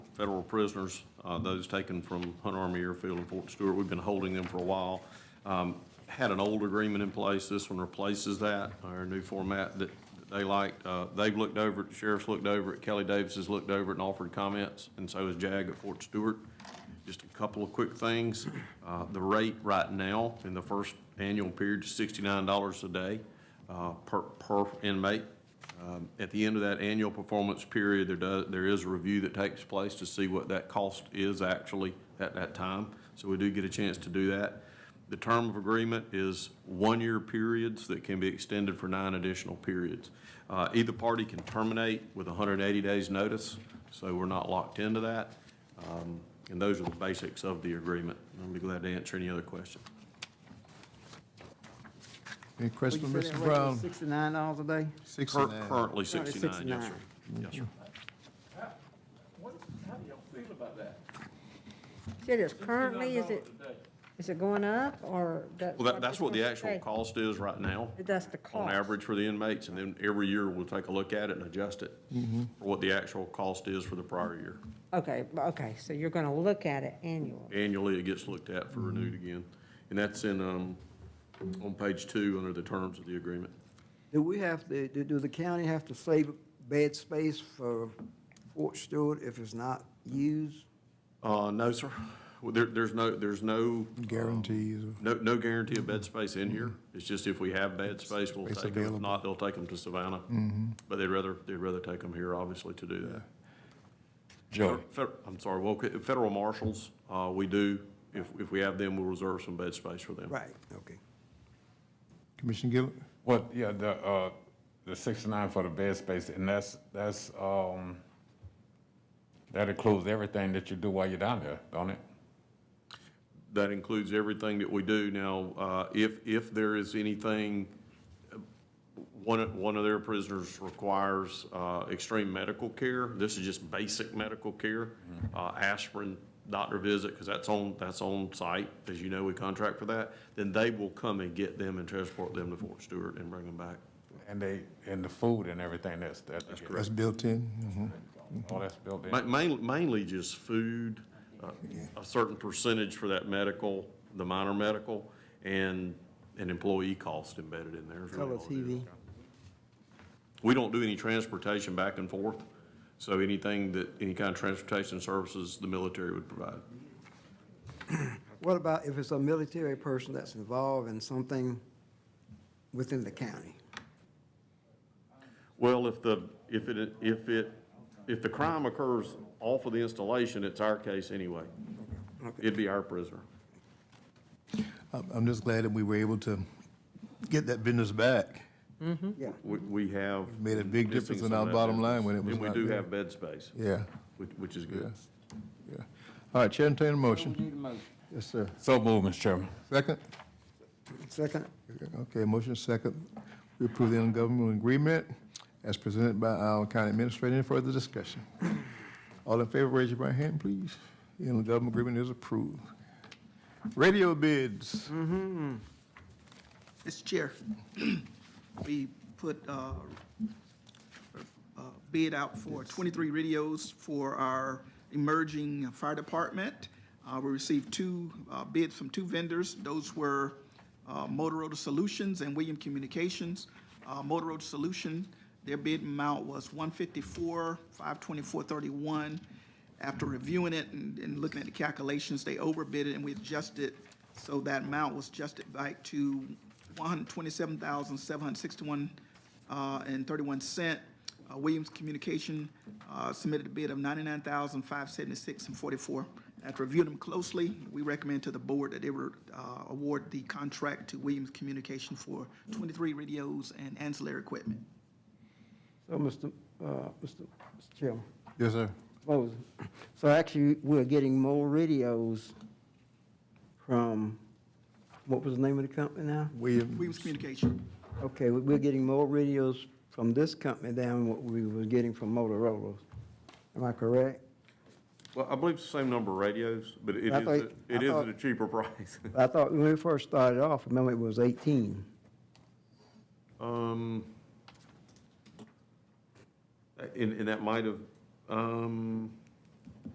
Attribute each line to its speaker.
Speaker 1: federal prisoners, uh, those taken from Hunt Army Airfield and Fort Stewart. We've been holding them for a while. Um, Had an old agreement in place. This one replaces that, our new format that that they liked. Uh, They've looked over it, the sheriff's looked over it, Kelly Davis has looked over it and offered comments, and so has JAG at Fort Stewart. Just a couple of quick things. Uh, The rate right now in the first annual period is $69 a day uh, per per inmate. Um, At the end of that annual performance period, there does, there is a review that takes place to see what that cost is actually at that time. So we do get a chance to do that. The term of agreement is one-year periods that can be extended for nine additional periods. Uh, Either party can terminate with 180 days' notice, so we're not locked into that. Um, And those are the basics of the agreement. I'll be glad to answer any other questions.
Speaker 2: Any
Speaker 3: Would you
Speaker 2: questions,
Speaker 3: say that
Speaker 2: Mr.
Speaker 3: rate was
Speaker 2: Brown?
Speaker 3: Sixty-nine dollars a day?
Speaker 2: Six
Speaker 1: Cur-
Speaker 2: and nine.
Speaker 1: Currently
Speaker 3: Currently
Speaker 1: 69, yes, sir.
Speaker 3: 69.
Speaker 1: Yes, sir.
Speaker 4: It is currently, is it, is it going up or? that-
Speaker 1: Well, that, that's what the
Speaker 4: it's
Speaker 1: actual
Speaker 4: gonna
Speaker 1: cost is right now.
Speaker 4: stay? That's the cost.
Speaker 1: on average for the inmates, and then every year we'll take a look at it and adjust it for what the actual cost is for the prior year.
Speaker 4: Okay, b- okay, so you're gonna look at it annually.
Speaker 1: Annually, it gets looked at for renewed again, and that's in, um, on page two, under the terms of the agreement.
Speaker 3: Do we have to, do, do the county have to save bed space for Fort Stewart if it's not used?
Speaker 1: Uh, no, sir, Well, there, there's no, there's no,
Speaker 2: Guarantees. of-
Speaker 1: no, no guarantee of bed space in here. It's just if we have bed space, we'll
Speaker 2: Space
Speaker 1: take them,
Speaker 2: available.
Speaker 1: if not, they'll take them to Savannah. But they'd rather, they'd rather take them here, obviously, to do that.
Speaker 5: Joey,
Speaker 1: Fed- I'm sorry, well, okay, federal marshals, uh, we do, if, if we have them, we'll reserve some bed space for them.
Speaker 3: Right, okay.
Speaker 2: Commissioner Gill,
Speaker 5: what, yeah, the, uh, the sixty-nine for the bed space, and that's, that's, um, that includes everything that you do while you're down there, don't it?
Speaker 1: That includes everything that we do. Now, uh, if, if there is anything, uh, one, of- one of their prisoners requires uh, extreme medical care, this is just basic medical care, uh, aspirin, doctor visit, because that's on, that's on site, as you know, we contract for that, then they will come and get them and transport them to Fort Stewart and bring them back.
Speaker 5: And they, and the food and everything that's, that's.
Speaker 2: that's built in. Mhm.
Speaker 5: All that's built in.
Speaker 1: Ma- main- Mainly just food, uh, a certain percentage for that medical, the minor medical, and an employee cost embedded in there. is really
Speaker 3: Color
Speaker 1: all it is.
Speaker 3: TV.
Speaker 1: We don't do any transportation back and forth, so anything that, any kind of transportation services the military would provide.
Speaker 3: What about if it's a military person that's involved in something within the county?
Speaker 1: Well, if the, if it, if it, if the crime occurs off of the installation, it's our case anyway. It'd be our prisoner.
Speaker 2: I'm, I'm just glad that we were able to get that business back.
Speaker 3: Yeah.
Speaker 1: We, we have.
Speaker 2: Made a big
Speaker 1: missing
Speaker 2: difference in
Speaker 1: some of
Speaker 2: our
Speaker 1: that
Speaker 2: bottom
Speaker 1: business.
Speaker 2: line when it was
Speaker 1: And we
Speaker 2: not
Speaker 1: do
Speaker 2: there.
Speaker 1: have bed space,
Speaker 2: Yeah,
Speaker 1: which, which is good.
Speaker 2: yeah. All right, Chair, entertain a motion. Yes, sir.
Speaker 5: So move, Mr. Chairman.
Speaker 2: Second?
Speaker 3: Second,
Speaker 2: Okay, motion second. We approve the intergovernmental agreement as presented by our county administrator. Any further discussion? All in favor, raise your right hand, please. The intergovernmental agreement is approved. Radio bids.
Speaker 1: Mm.
Speaker 6: Mr. Chair, we put uh, a uh, bid out for 23 radios for our emerging fire department. Uh, We received two uh, bids from two vendors. Those were uh, Motorola Solutions and William Communications. Uh, Motorola Solution, their bid amount was 154, 524, 31. After reviewing it and and looking at the calculations, they overbid it and we adjusted. So that amount was adjusted back to 127,761 uh, and 31 cent. Uh, Williams Communication uh, submitted a bid of 99,576 and 44. After reviewing them closely, we recommend to the board that they were, uh, award the contract to Williams Communication for 23 radios and ancillary equipment.
Speaker 3: so Mr. Uh, Mr. Chairman.
Speaker 2: Yes, sir.
Speaker 3: Moses. So actually, we're getting more radios from, what was the name of the company now?
Speaker 2: Williams.
Speaker 6: Williams Communication.
Speaker 3: Okay, we- we're getting more radios from this company than what we were getting from Motorola. Am I correct?
Speaker 1: Well, I believe it's the same number of radios, but it is,
Speaker 3: I
Speaker 1: a-
Speaker 3: thought- I
Speaker 1: it is at
Speaker 3: thought-
Speaker 1: a cheaper price.
Speaker 3: I thought when we first started off, remember it was 18.
Speaker 1: Um, and, and that might have, um,